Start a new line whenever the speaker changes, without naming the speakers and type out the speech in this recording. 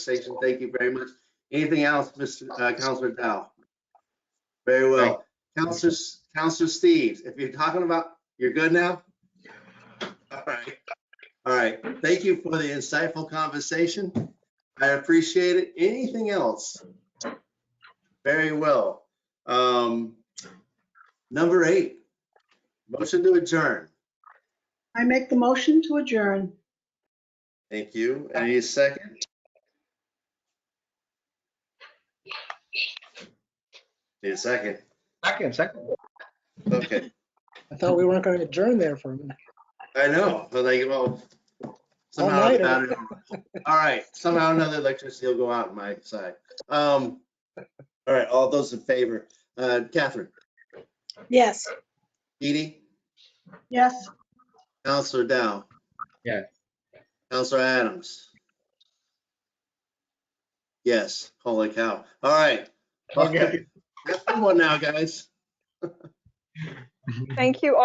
conversation. Thank you very much. Anything else, Mr. uh, Counselor Dow? Very well. Counselor, Counselor Steves, if you're talking about, you're good now? All right. All right. Thank you for the insightful conversation. I appreciate it. Anything else? Very well. Um, Number eight, motion to adjourn.
I make the motion to adjourn.
Thank you. Any second? Need a second?
Second, second.
Okay,
I thought we weren't going to adjourn there for a minute.
I know, but like, well, somehow,
All-nighter.
I don't know. all right, somehow or another electricity will go out on my side. Um, all right, all those in favor, uh, Catherine,
Yes.
Dee Dee,
Yes.
Counselor Dow.
Yeah.
Counselor Adams. Yes, holy cow. All right.
Okay.
Have fun one now, guys.
Thank you all.